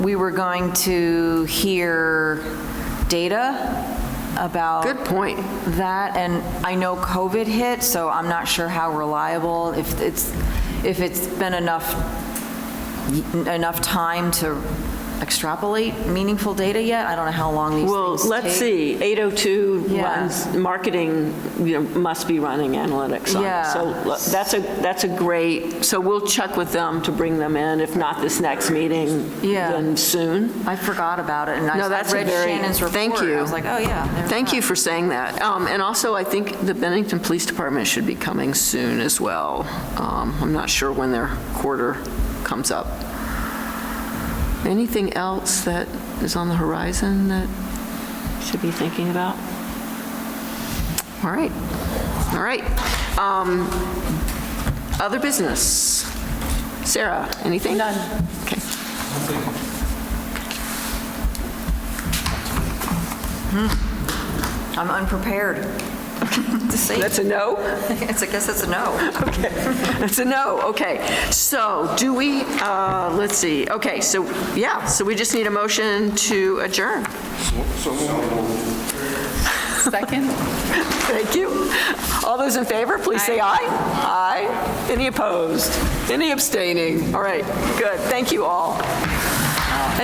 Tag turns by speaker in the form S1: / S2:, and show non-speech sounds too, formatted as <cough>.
S1: we were going to hear data about
S2: Good point.
S1: that, and I know COVID hit, so I'm not sure how reliable, if it's, if it's been enough, enough time to extrapolate meaningful data yet. I don't know how long these things
S3: Well, let's
S1: take.
S3: see, 802
S1: Yeah.
S3: runs, marketing, you know, must be running analytics on it.
S1: Yeah.
S3: So look, that's a, that's a great, so we'll check with them to bring them in, if not this next meeting,
S1: Yeah.
S3: then soon.
S1: I forgot about it, and I
S2: No,
S1: I
S2: that's a
S1: read
S2: very-
S1: Shannon's report.
S2: thank you.
S1: I was like, oh, yeah. there's
S2: Thank
S1: that.
S2: you for saying that. Um, And also, I think the Bennington Police Department should be coming soon as well. Um, I'm not sure when their quarter comes up. Anything else that is on the horizon that,
S3: Should be thinking about.
S2: all right, all right. Um, Other business? Sarah, anything? None. Okay.
S1: I'm unprepared <laughs> to say.
S2: That's a no?
S1: <laughs> It's, I guess it's a no.
S2: That's a no, okay. So do we, uh, let's see, okay, so, yeah, so we just need a motion to adjourn.
S4: Second?
S2: Thank you. All those in favor, please say aye. Aye. Any opposed? Any abstaining? All right, good. Thank you all.